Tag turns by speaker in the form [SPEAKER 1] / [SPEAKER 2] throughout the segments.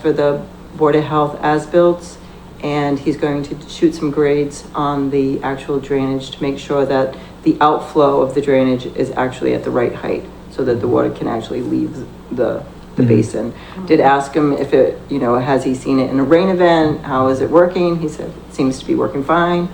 [SPEAKER 1] for the Board of Health as-built, and he's going to shoot some grades on the actual drainage to make sure that the outflow of the drainage is actually at the right height, so that the water can actually leave the, the
[SPEAKER 2] Mhm.
[SPEAKER 1] basin. Did ask him if it, you know, has he seen it in a rain event, how is it working? He said, it seems to be working fine.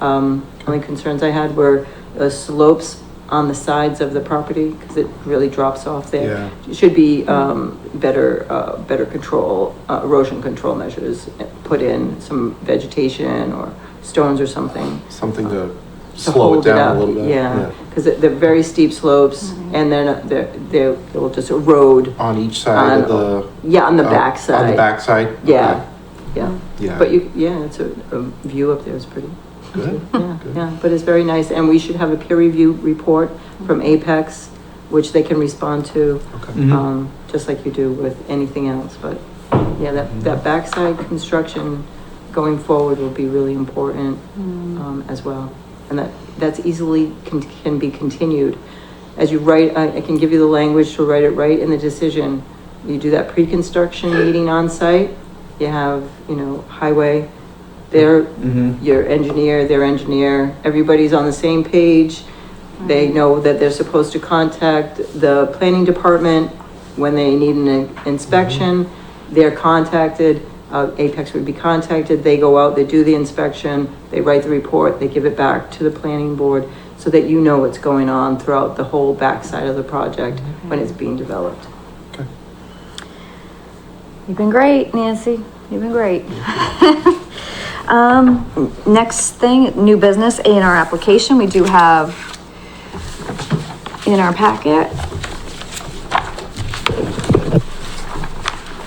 [SPEAKER 1] Um, only concerns I had were the slopes on the sides of the property, because it really drops off there
[SPEAKER 2] Yeah.
[SPEAKER 1] should be um, better, uh, better control, uh, erosion control measures, uh, put in some vegetation or stones or something.
[SPEAKER 2] Something to
[SPEAKER 1] to
[SPEAKER 2] slow it
[SPEAKER 1] hold
[SPEAKER 2] down a
[SPEAKER 1] up.
[SPEAKER 2] little bit.
[SPEAKER 1] Yeah, because they're very steep slopes and then uh, they're, they're, they'll just erode,
[SPEAKER 2] On each side of
[SPEAKER 1] On-
[SPEAKER 2] the.
[SPEAKER 1] yeah, on the
[SPEAKER 2] uh, On
[SPEAKER 1] backside.
[SPEAKER 2] the backside?
[SPEAKER 1] Yeah, yeah.
[SPEAKER 2] Okay. Yeah.
[SPEAKER 1] But you, yeah, it's a, a view up there is pretty.
[SPEAKER 2] Good.
[SPEAKER 1] Yeah,
[SPEAKER 2] Good.
[SPEAKER 1] yeah, but it's very nice, and we should have a peer review report from Apex, which they can respond to,
[SPEAKER 2] Okay.
[SPEAKER 3] Mhm.
[SPEAKER 1] um, just like you do with anything else, but, yeah, that,
[SPEAKER 2] Mm-hmm.
[SPEAKER 1] that backside construction going forward will be really important,
[SPEAKER 4] Mm.
[SPEAKER 2] Mm-hmm.
[SPEAKER 1] um, as well. And that, that's easily can, can be continued. As you write, I, I can give you the language to write it right in the decision. You do that pre-construction meeting on site. you have, you know, highway, their,
[SPEAKER 3] Mhm.
[SPEAKER 1] your engineer, their engineer, everybody's on the same page. They know that they're supposed to contact the planning department when they need an inspection. They're contacted, uh, Apex would be contacted, they go out, they do the inspection, they write the report, they give it back to the planning board so that you know what's going on throughout the whole backside of the project when it's being developed.
[SPEAKER 2] Okay.
[SPEAKER 4] You've been great, Nancy. You've been great. Um, next thing, new business, A and R application. We do have in our packet.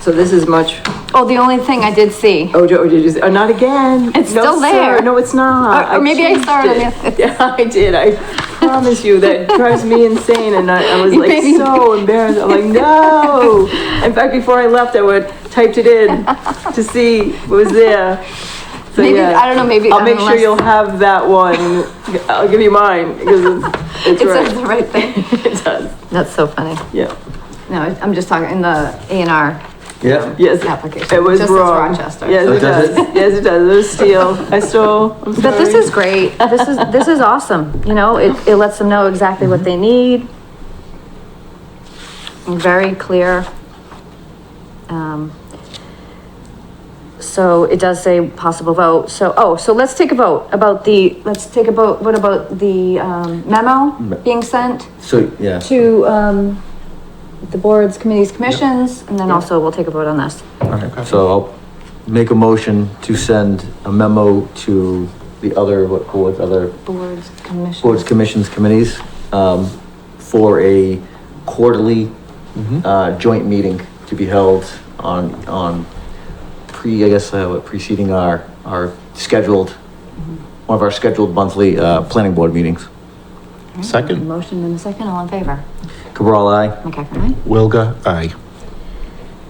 [SPEAKER 1] So this is much,
[SPEAKER 4] Oh, the only thing I did see.
[SPEAKER 1] oh, did you, say- oh, not again.
[SPEAKER 4] It's
[SPEAKER 1] No,
[SPEAKER 4] still
[SPEAKER 1] sir.
[SPEAKER 4] there.
[SPEAKER 1] No, it's not.
[SPEAKER 4] Or- or maybe I
[SPEAKER 1] changed
[SPEAKER 4] saw it on
[SPEAKER 1] it.
[SPEAKER 4] the other-
[SPEAKER 1] Yeah, I did. I promise you that drives me insane. And I, I was
[SPEAKER 4] You
[SPEAKER 1] like
[SPEAKER 4] made me-
[SPEAKER 1] so embarrassed. I'm like, no. In fact, before I left, I would typed it in to see what was there. So,
[SPEAKER 4] Maybe-
[SPEAKER 1] yeah.
[SPEAKER 4] I don't know, maybe-
[SPEAKER 1] I'll make sure
[SPEAKER 4] unless-
[SPEAKER 1] you'll have that one. I'll give you mine because it's, it's
[SPEAKER 4] It says
[SPEAKER 1] right.
[SPEAKER 4] the right thing.
[SPEAKER 1] It does.
[SPEAKER 4] That's so funny.
[SPEAKER 1] Yeah.
[SPEAKER 4] No, I- I'm just talking in the A and R
[SPEAKER 3] Yeah.
[SPEAKER 1] Yes.
[SPEAKER 4] application.
[SPEAKER 1] It was
[SPEAKER 4] just it's
[SPEAKER 1] wrong.
[SPEAKER 4] Rochester.
[SPEAKER 1] Yes,
[SPEAKER 3] So
[SPEAKER 1] it
[SPEAKER 3] it Oh, does
[SPEAKER 1] does. Yes, it does. It was steel. I stole. I'm
[SPEAKER 4] But this
[SPEAKER 1] sorry.
[SPEAKER 4] is great. This is, this is awesome. You know, it, it lets them know exactly what they need. Very clear. Um, So it does say possible vote. So, oh, so let's take a vote about the, let's take a vote, what about the um, memo
[SPEAKER 3] Me-
[SPEAKER 4] being sent
[SPEAKER 3] So, yeah.
[SPEAKER 4] to um, the boards, committees, commissions? And then also we'll take a vote on this.
[SPEAKER 3] Alright, so I'll make a motion to send a memo to the other, what, what other
[SPEAKER 4] Boards, commissions.
[SPEAKER 3] boards, commissions, committees, um, for a quarterly,
[SPEAKER 2] Mm-hmm.
[SPEAKER 1] Mm-hmm.
[SPEAKER 3] uh, joint meeting to be held on, on pre, I guess, uh, what, preceding our, our scheduled, one of our scheduled monthly, uh, planning board meetings.
[SPEAKER 4] Hmm.
[SPEAKER 2] Second.
[SPEAKER 4] Motion in a second, all in favor?
[SPEAKER 3] Cabral, aye?
[SPEAKER 4] McCaffrey, aye?
[SPEAKER 2] Wilga, aye.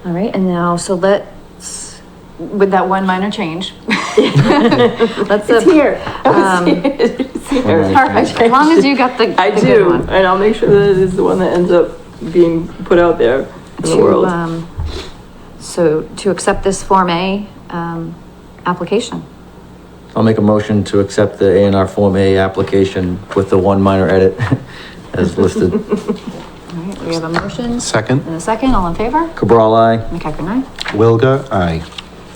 [SPEAKER 4] All right, and now, so let's, with that one minor change. Let's,
[SPEAKER 1] It's
[SPEAKER 4] uh,
[SPEAKER 1] here.
[SPEAKER 4] um,
[SPEAKER 1] It's here.
[SPEAKER 3] Alright.
[SPEAKER 4] perfect, as long as you got the.
[SPEAKER 1] I
[SPEAKER 4] the good
[SPEAKER 1] do,
[SPEAKER 4] one.
[SPEAKER 1] and I'll make sure that it is the one that ends up being put out there in the
[SPEAKER 4] To,
[SPEAKER 1] world.
[SPEAKER 4] um, So to accept this Form A, um, application.
[SPEAKER 3] I'll make a motion to accept the A and R Form A application with the one minor edit as listed.
[SPEAKER 4] All right, we have a motion
[SPEAKER 2] Second.
[SPEAKER 4] and a second, all in favor?
[SPEAKER 3] Cabral, aye?
[SPEAKER 4] McCaffrey, aye?
[SPEAKER 2] Wilga, aye.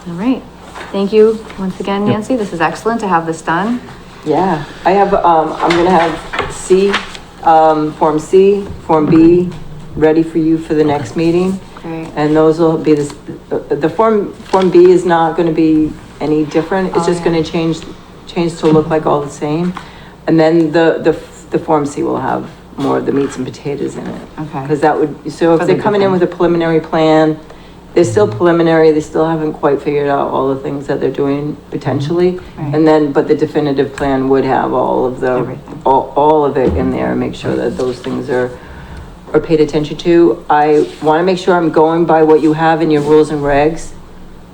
[SPEAKER 4] All right, thank you once again, Nancy, this is excellent to have this done.
[SPEAKER 1] Yeah, I have, um, I'm gonna have C, um, Form C, Form B, ready for you for the next meeting.
[SPEAKER 4] Great.
[SPEAKER 1] And those will be, the, uh, the Form, Form B is not gonna be any different, it's
[SPEAKER 4] Oh,
[SPEAKER 1] just
[SPEAKER 4] yeah.
[SPEAKER 1] gonna change, change to look like all the same. And then the, the, the Form C will have more of the meats and potatoes in it.
[SPEAKER 4] Okay.
[SPEAKER 1] Because that would, so
[SPEAKER 4] For
[SPEAKER 1] if
[SPEAKER 4] the
[SPEAKER 1] they're coming in with a preliminary plan, they're still preliminary, they still haven't quite figured out all the things that they're doing potentially.
[SPEAKER 4] Right.
[SPEAKER 1] And then, but the definitive plan would have all of the,
[SPEAKER 4] Everything.
[SPEAKER 1] all, all of it in there, make sure that those things are, are paid attention to. I wanna make sure I'm going by what you have in your rules and regs,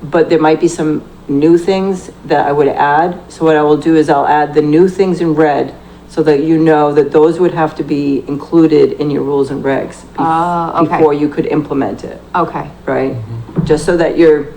[SPEAKER 1] but there might be some new things that I would add. So what I will do is I'll add the new things in red, so that you know that those would have to be included in your rules and regs. bef-
[SPEAKER 4] Ah, okay.
[SPEAKER 1] Before you could implement it,
[SPEAKER 4] Okay.
[SPEAKER 1] right? Just so that you're